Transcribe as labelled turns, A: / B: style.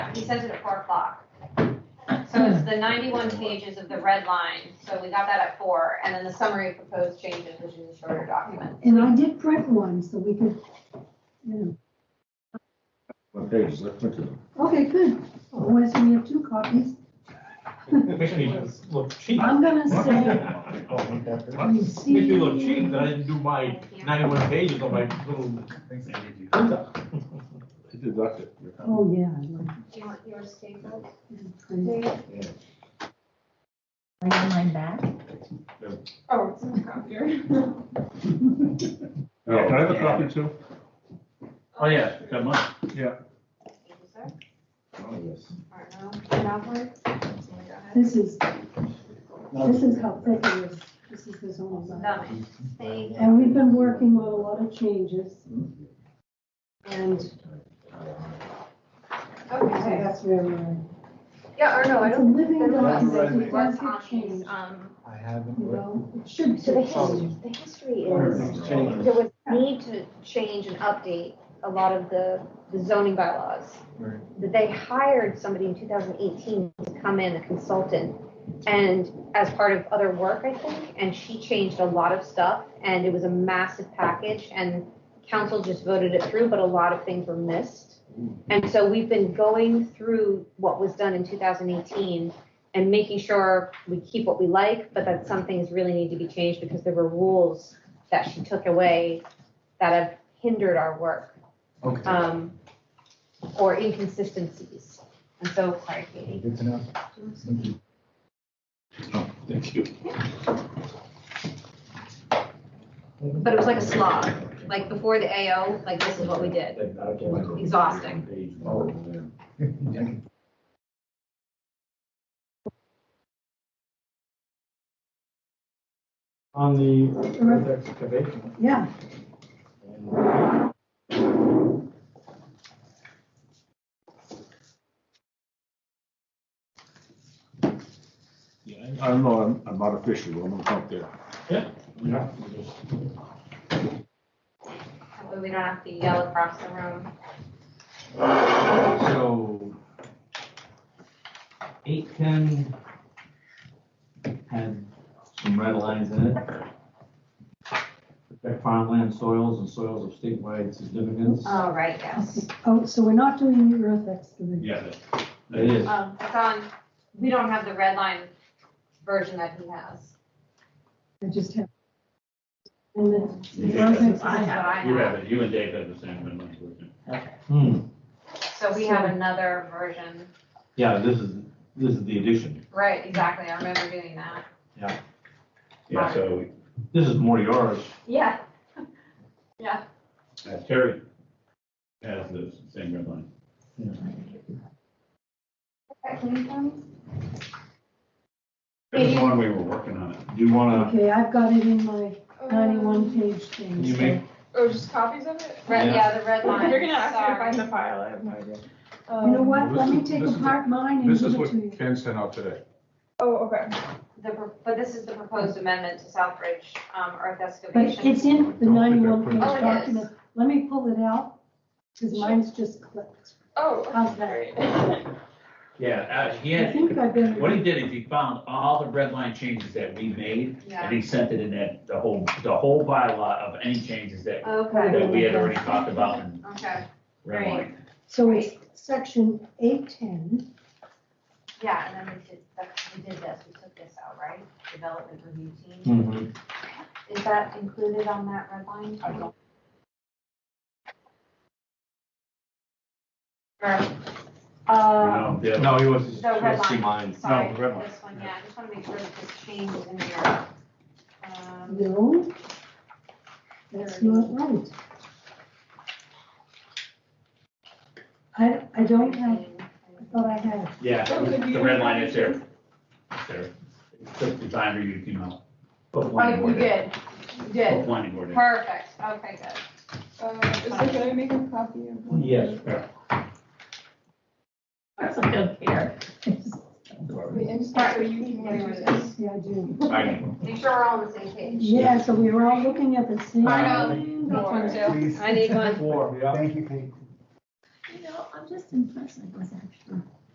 A: he sends it at four o'clock. So it's the ninety-one pages of the red line, so we got that at four, and then the summary of proposed changes, which is a shorter document.
B: And I did print one, so we could, you know,
C: What page is that? Look at them.
B: okay, good. Otherwise, we have two copies.
D: Make me look cheap. Oh,
B: I'm gonna say,
D: Make
B: you see.
D: me look cheap, that I didn't do my ninety-one pages on my little. Oh,
C: I deducted. your comment.
B: Oh, yeah. I like
A: Do you want yours stapled?
B: to print.
E: Bring mine back.
A: Oh, it's in the copier.
C: Yeah, Can I have a copy too?
D: Oh, yeah, got mine.
A: Thank you, sir.
C: Oh, yes.
A: Arno, and Alfred. Go ahead.
B: This is, this is how thick it is. This is the zoning bylaw.
A: Done. Thank
B: And we've been working on a lot of changes.
C: Hmm?
B: And so
A: Okay.
B: that's where we're.
A: Yeah, Arno, I
B: It's a
A: don't.
B: living
A: none of us
B: document. It
A: worked
B: does
A: on
B: get
A: these,
B: changed,
A: um,
F: I haven't.
B: you
F: looked.
B: know? It should.
E: So the
B: get changed.
E: history, the history is, there was need to change and update a lot of the the zoning bylaws.
F: Right.
E: That they hired somebody in two thousand eighteen to come in, a consultant, and as part of other work, I think, and she changed a lot of stuff, and it was a massive package, and council just voted it through, but a lot of things were missed. And so we've been going through what was done in two thousand eighteen and making sure we keep what we like, but that some things really need to be changed because there were rules that she took away that have hindered our work,
F: Okay.
E: um, or inconsistencies. And so, sorry, Katie.
F: Good to know. Thank you.
C: Oh, Thank you.
A: but it was like a slog, like before the AO, like this is what we did. Exhausting.
C: Oh,
F: Oh.
D: On the
B: Uh-huh.
D: earth excavation.
B: Yeah,
C: I don't know, I'm, I'm not official, but I'm gonna come up there.
D: Yeah.
A: That way we don't have to yell across the room.
D: So. Eight ten had some red lines in it. Protect farmland soils and soils of statewide significance.
A: Oh, right, yes.
B: oh, so we're not doing the earth excavation.
D: Yeah, that is.
A: Um, it's on, we don't have the red line version that he has.
B: I just have. And then the
G: Yeah.
B: earth
A: This is what
B: excavation.
A: I
G: You
A: have.
G: have it, you and Dave have the same red line version.
D: Hmm,
A: So we have another version.
D: yeah, this is, this is the addition.
A: Right, exactly. I remember doing that.
G: Yeah, so
D: This is more yours.
A: Yeah.
G: uh, Terry has the same red line. That's the one we were working on it.
D: Do you wanna,
B: Okay, I've got it in my ninety-one page thing.
D: can you
B: so-
D: make,
H: Oh, just copies of it?
A: Red,
D: Yeah.
A: yeah, the red line.
H: You're gonna ask me to
A: Sorry.
H: find the file, I have no idea.
B: You know
H: Um,
B: what, let
C: This
B: me
C: is-
B: take
C: this is-
B: apart mine and
C: This is
B: give it
C: what
B: to you.
C: Ken sent out today.
H: Oh, okay.
A: The, pro- but this is the proposed amendment to Southbridge, um, earth
B: But
A: excavation.
B: it's in the ninety-one page
A: Oh, it is.
B: document. Let me pull it out, because mine's just clipped.
H: Oh,
B: How's that?
H: great.
G: Yeah, uh, he
B: I
G: had,
B: think I've been.
G: what he did is he found all the red line changes that we made,
A: Yeah.
G: and he sent it in that, the whole, the whole bylaw of any changes that,
A: Okay,
G: that we had already talked about in
A: okay.
G: red line.
B: So it's section eight-ten,
A: Yeah, and then we did, that- we did this, we took this out, right? Development review team.
D: Mhm.
A: Is that included on that red line? I don't. Uh,
G: No, the other-
D: no, he was, he
A: um, the red
D: was see
A: line,
D: mine.
A: sorry,
D: No,
A: this
D: red line.
A: one, yeah, I just wanna make sure that this change is in here. Um,
B: no. That's not right. I, I don't have, I thought I had.
G: Yeah, the red line is there. It's there. It Took the time for you to, you know, put one
A: Oh,
G: more
A: we
G: in.
A: did, we
G: Put
A: did,
G: one more in.
A: perfect, okay, good.
H: Uh, is there, can I make a copy of one?
D: Yes.
H: Wait, I'm sorry, so you can hear this.
B: Yeah, I do.
G: Alright.
A: Make sure we're all on the same page.
B: Yeah, so we were all looking at the same.
A: Arno,
B: thing.
A: That's one too.
F: Please.
A: I need one.
D: Four, yeah.
F: Thank you, Kate.
I: You know, I'm just impressed with this actually.